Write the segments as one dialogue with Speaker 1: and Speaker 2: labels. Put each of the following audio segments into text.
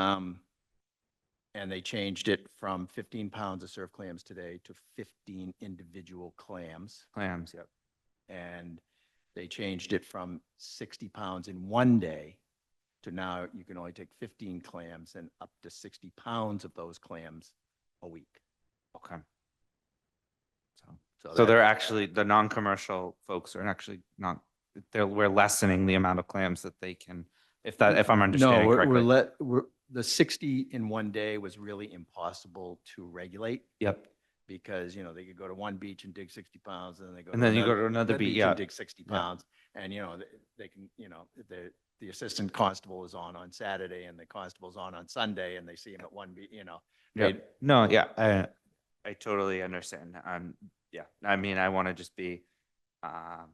Speaker 1: Um, and they changed it from fifteen pounds of surf clams today to fifteen individual clams.
Speaker 2: Clams, yep.
Speaker 1: And they changed it from sixty pounds in one day to now you can only take fifteen clams and up to sixty pounds of those clams a week.
Speaker 2: Okay. So- So
Speaker 1: that-
Speaker 2: they're actually, the non-commercial folks are actually not, they're, we're lessening the amount of clams that they can, if that, if I'm
Speaker 1: No,
Speaker 2: understanding
Speaker 1: we're, we're
Speaker 2: correctly.
Speaker 1: let, we're, the sixty in one day was really impossible to regulate
Speaker 2: Yep.
Speaker 1: because, you know, they could go to one beach and dig sixty pounds and then they go.
Speaker 2: And then you go to another
Speaker 1: another
Speaker 2: beat,
Speaker 1: and
Speaker 2: yeah.
Speaker 1: Dig sixty
Speaker 2: Yeah.
Speaker 1: pounds and, you know, they, they can, you know, the, the assistant constable is on on Saturday and the constable's on on Sunday and they see him at one beat, you know.
Speaker 2: Yeah,
Speaker 1: Right.
Speaker 2: no, yeah, I, I totally understand. Um, yeah, I mean, I want to just be, um,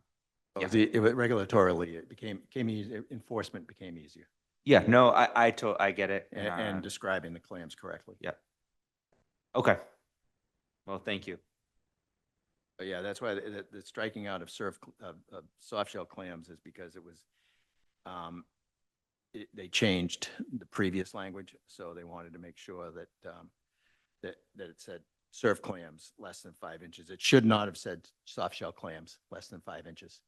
Speaker 2: Yeah.
Speaker 1: The, it wa- regulatorily, it became, became easy, enforcement became easier
Speaker 2: yeah, no, I, I to, I get it.
Speaker 1: a- and
Speaker 2: uh,
Speaker 1: describing the clams correctly.
Speaker 2: Okay. Well, thank you.
Speaker 1: But Uh, yeah, that's why the, the- the striking out of surf, cl- of, of soft shell clams is because it was, um, it, they changed the previous language, so they wanted to make sure that, um, that, that it said surf clams less than five inches. It should not have said soft shell clams less than five inches.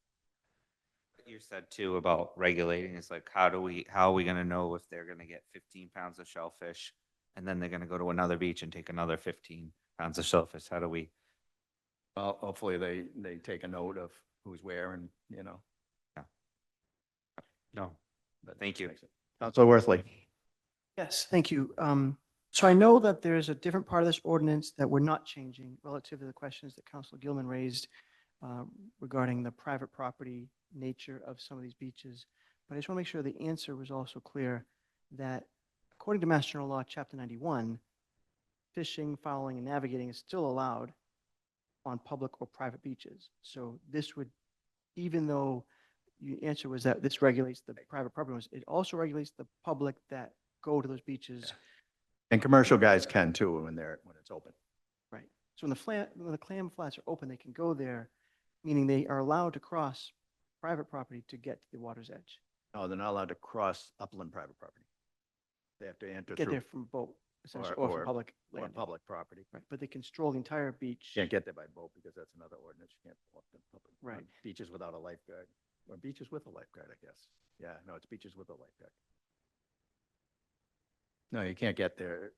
Speaker 2: What You said too about regulating, it's like, how do we, how are we gonna know if they're gonna get fifteen pounds of shellfish? And then they're gonna go to another beach and take another fifteen pounds of shellfish, how do we?
Speaker 1: Well, hopefully they, they take a note of who's where and, you know.
Speaker 2: No.
Speaker 1: but-
Speaker 2: Thank you.
Speaker 3: Counselor Worthley.
Speaker 4: Yes, thank you. Um, So I know that there is a different part of this ordinance that we're not changing relative to the questions that Councilor Gilman raised uh, regarding the private property nature of some of these beaches. But I just want to make sure the answer was also clear that according to Mass General Law, Chapter 91, fishing, fouling, and navigating is still allowed on public or private beaches. So this would, even though your answer was that this regulates the private property owners, it also regulates the public that go to those beaches.
Speaker 1: And commercial guys can too when they're, when it's open.
Speaker 4: Right. So when the flat, when the clam flats are open, they can go there, meaning they are allowed to cross private property to get to the water's edge,
Speaker 1: No, they're not allowed to cross upland private property. They have to enter
Speaker 4: get
Speaker 1: through
Speaker 4: there from boat, essentially,
Speaker 1: Or-
Speaker 4: or
Speaker 1: or-
Speaker 4: from public
Speaker 1: or
Speaker 4: land.
Speaker 1: public property.
Speaker 4: Right, but they can stroll the entire beach.
Speaker 1: Can't get there by boat because that's another ordinance. You can't walk the public. on
Speaker 4: Right.
Speaker 1: Beaches without a lifeguard, or beaches with a lifeguard, I guess. Yeah, no, it's beaches with a lifeguard. No, you can't get there.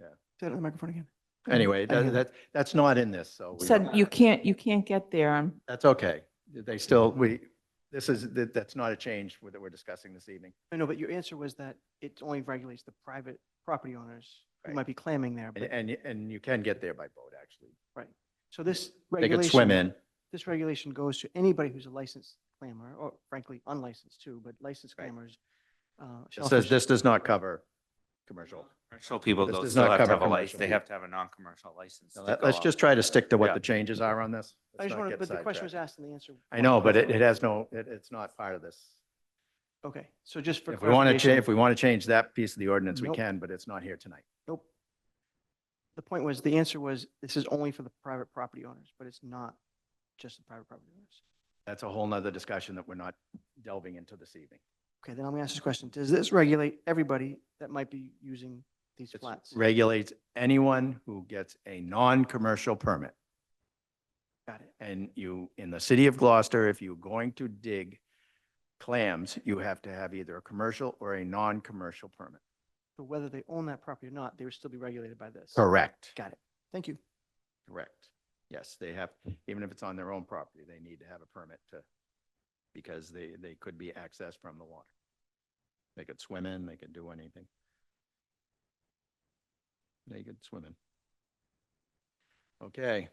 Speaker 4: Say that on the microphone again.
Speaker 1: Anyway,
Speaker 4: I hear
Speaker 1: that, that, that's not in this, so. we
Speaker 5: Said
Speaker 1: don't-
Speaker 5: you can't, you can't get there on,
Speaker 1: That's okay. They still, we, this is, that, that's not a change that we're discussing this evening.
Speaker 4: I know, but your answer was that it only regulates the private property owners who
Speaker 1: Right.
Speaker 4: might be clamming there.
Speaker 1: And,
Speaker 4: But,
Speaker 1: and, and you can get there by boat, actually.
Speaker 4: so this
Speaker 1: They
Speaker 4: regulation.
Speaker 1: could swim in.
Speaker 4: this regulation goes to anybody who's a licensed clammer, or frankly, unlicensed too, but licensed
Speaker 1: Right.
Speaker 4: clammers. uh,
Speaker 1: It says
Speaker 4: shellfish-
Speaker 1: this does not cover commercial.
Speaker 2: Commercial people
Speaker 1: This
Speaker 2: though
Speaker 1: does
Speaker 2: still
Speaker 1: not
Speaker 2: have to
Speaker 1: cover
Speaker 2: have a license,
Speaker 1: commercial
Speaker 2: they
Speaker 1: people.
Speaker 2: have to have a non-commercial license.
Speaker 1: Now,
Speaker 2: to
Speaker 1: let-
Speaker 2: go
Speaker 1: Let's
Speaker 2: out.
Speaker 1: just try to stick to what
Speaker 2: Yeah.
Speaker 1: the changes are on this.
Speaker 4: I
Speaker 1: Let's
Speaker 4: just
Speaker 1: not
Speaker 4: wanted,
Speaker 1: get
Speaker 4: but the question was
Speaker 1: sidetracked.
Speaker 4: asked and the answer.
Speaker 1: I know, but it, it
Speaker 4: wasn't.
Speaker 1: has no, it, it's not part of this.
Speaker 4: Okay, so just for
Speaker 1: If we want to
Speaker 4: clarification,
Speaker 1: change, if we want to change that piece of the ordinance, we
Speaker 4: Nope.
Speaker 1: can, but it's not here tonight.
Speaker 4: Nope. The point was, the answer was, this is only for the private property owners, but it's not just the private property owners.
Speaker 1: That's a whole nother discussion that we're not delving into this evening.
Speaker 4: Okay, then I'm gonna ask this question. Does this regulate everybody that might be using these
Speaker 1: It
Speaker 4: flats?
Speaker 1: regulates anyone who gets a non-commercial permit.
Speaker 4: Got it.
Speaker 1: And you, in the city of Gloucester, if you're going to dig clams, you have to have either a commercial or a non-commercial permit.
Speaker 4: So whether they own that property or not, they would still be regulated by this.
Speaker 1: Correct.
Speaker 4: Got it. Thank you.
Speaker 1: Correct. Yes, they have, even if it's on their own property, they need to have a permit to, because they, they could be accessed from the water. They could swim in, they could do anything. They could swim in. Okay,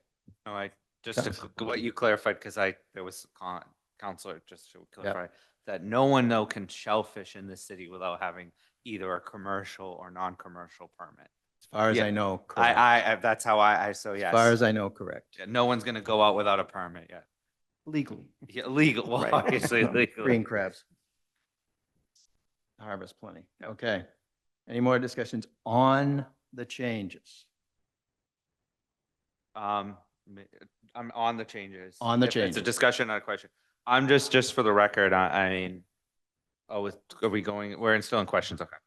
Speaker 2: No, I, just to,
Speaker 1: Council.
Speaker 2: c- what you clarified, because I, there was con, counselor, just to clarify, that no one though can shellfish in this city without having either a commercial or non-commercial permit.
Speaker 1: as far as
Speaker 2: Yeah,
Speaker 1: I oh, know,
Speaker 2: I,
Speaker 1: correct.
Speaker 2: I, I, that's how I, I, so
Speaker 1: As far
Speaker 2: yes.
Speaker 1: as I know, correct.
Speaker 2: Yeah, No one's gonna go out without a permit yet.
Speaker 4: Legally.
Speaker 2: Yeah, legal, well,
Speaker 4: Right.
Speaker 2: obviously
Speaker 1: Um, Green
Speaker 2: legally.
Speaker 1: crabs. Harvest plenty. Okay. Any more discussions on the changes?
Speaker 2: Um, ma- I'm on the changes.
Speaker 1: On the
Speaker 2: If It's
Speaker 1: changes.
Speaker 2: a discussion, not a question. I'm just, just for the record, I, I mean, oh, is- are we going, we're in- still in questions, okay.